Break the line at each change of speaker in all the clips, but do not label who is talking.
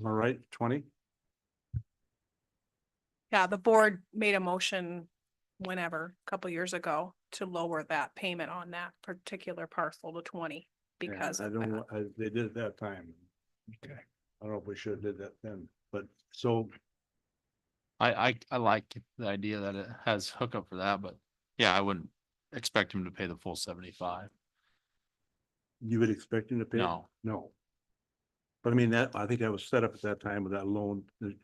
Am I right? Twenty?
Yeah, the board made a motion whenever, a couple years ago, to lower that payment on that particular parcel to twenty
Yeah,
because
I
of
don't,
that.
know, I, they did it that time. Okay. I don't know if we should have did that then, but so,
I, I, I like the idea that it has hookup for that, but yeah, I wouldn't expect him to pay the full seventy-five.
You would expect him to pay?
No.
No. But I mean, that, I think that was set up at that time with that loan. the-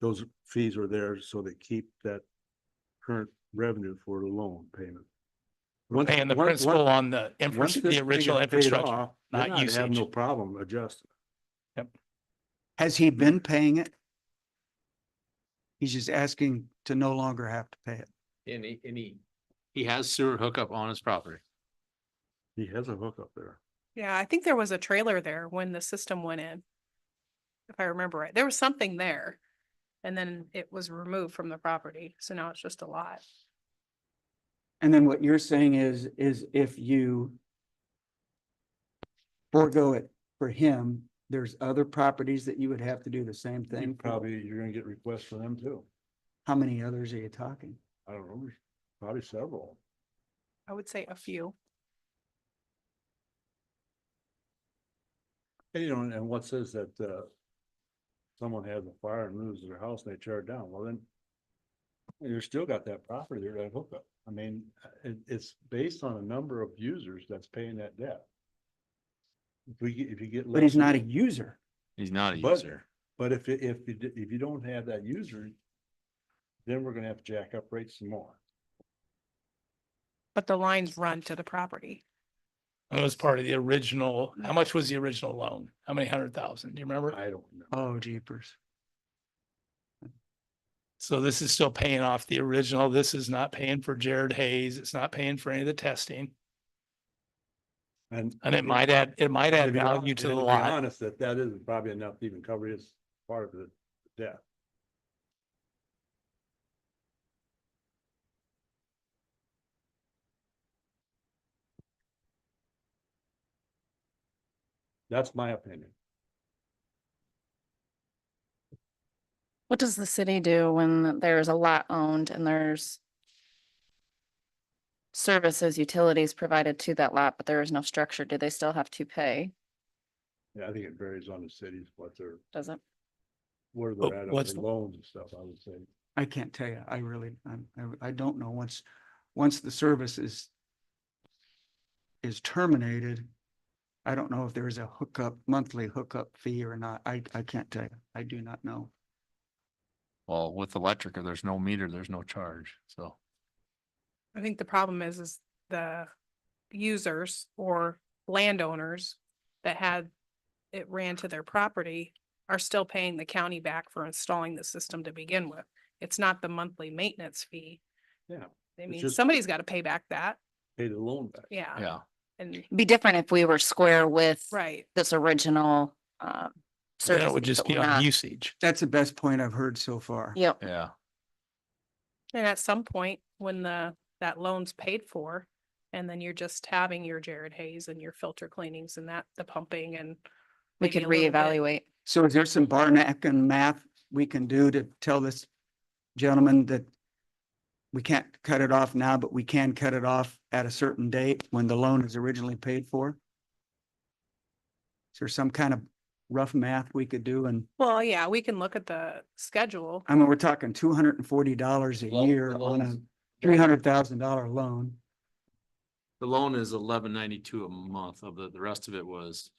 Those fees are there so they keep that current revenue for the loan payment. Once-
paying the
once-
principal
once-
on the infra-
once this
the
thing
original
is paid
infrastructure.
off, then
not
I'd have No
usage.
problem adjusting.
Has he been paying it? He's just asking to no longer have to pay it.
And he, and he. He has sewer hookup on his property.
He has a hookup there.
Yeah, I think there was a trailer there when the system went in. If I remember right, there was something there. And then it was removed from the property, so now it's just a lot.
And then what you're saying is, is if you forego it for him, there's other properties that you would have to do the same
You
thing. for?
probably, you're gonna get requests for them too.
How many others are you talking?
I don't know, probably several.
I would say a few.
And you know, and what says that, uh, someone has a fire and loses their house and they tear it down, well then. You're still got that property there, that hookup. I mean, uh, it, it's based on a number of users that's paying that debt. If we, get- if you get.
But he's
less
not a
u-
user.
He's not a
But-
user.
But if, it- if, you d- if you don't have that user. Then we're gonna have to jack up rates some more.
But the lines run to the property.
It was part of the original, how much was the original loan? How many hundred thousand? Do you remember?
I don't know.
Oh jeepers.
So this is still paying off the original. This is not paying for Jared Hayes. It's not paying for any of the testing.
And.
And it might add, it might
to
add
be hon-
value to
and
the
be
lot.
Honest, that that isn't probably enough to even cover his part of the debt. That's my opinion.
What does the city do when there's a lot owned and there's services, utilities provided to that lot, but there is no structure? Do they still have to pay?
Yeah, I think it varies on the cities, what they're,
Does it?
where
Oh,
they're at on
what's
the
the-
loans and stuff, I would say.
I can't tell you. I really, I'm, I, I don't know. Once, once the service is is terminated, I don't know if there is a hookup, monthly hookup fee or not. I, I can't tell you. I do not know.
Well, with electric, if there's no meter, there's no charge, so.
I think the problem is, is the users or landowners that had it ran to their property are still paying the county back for installing the system to begin with. It's not the monthly maintenance fee.
Yeah,
I
it's
mean,
just-
somebody's got to pay back that.
Pay the loan back.
Yeah.
Yeah,
And,
Be different if we were square with
right.
this original, uh,
Then
service.
it would just be on usage.
That's the best point I've heard so far.
Yep.
yeah.
And at some point, when the, that loan's paid for, and then you're just having your Jared Hayes and your filter cleanings and that, the pumping and
We
maybe
could
a little bit-
reevaluate.
So is there some Barnack and math we can do to tell this gentleman that we can't cut it off now, but we can cut it off at a certain date when the loan is originally paid for? Is there some kind of rough math we could do? And
Well, yeah, we can look at the schedule.
I mean, we're talking two hundred and forty dollars a
Loan- the
year on a
loans-
three hundred thousand dollar loan.
The loan is eleven ninety-two a month of the, the rest of it was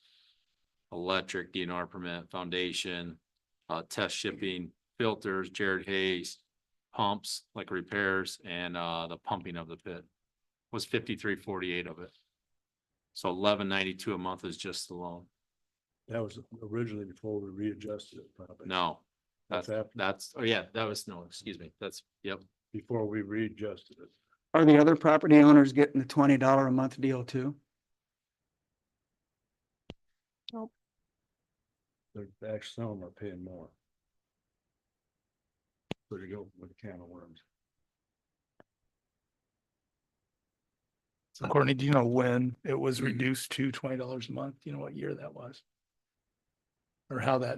electric, DNR permit, foundation, uh, test shipping, filters, Jared Hayes, pumps, like repairs, and, uh, the pumping of the pit was fifty-three forty-eight of it. So eleven ninety-two a month is just the loan.
That was originally before we readjusted it, probably.
No,
That's
that's,
after,
that's, oh yeah, that was, no, excuse me, that's, yep.
before we readjusted it.
Are the other property owners getting the twenty dollar a month deal too?
They're, actually, some of them are paying more. So you go with a can of worms.
So Courtney, do you know when it was reduced to twenty dollars a month? Do You know what year that was? or how that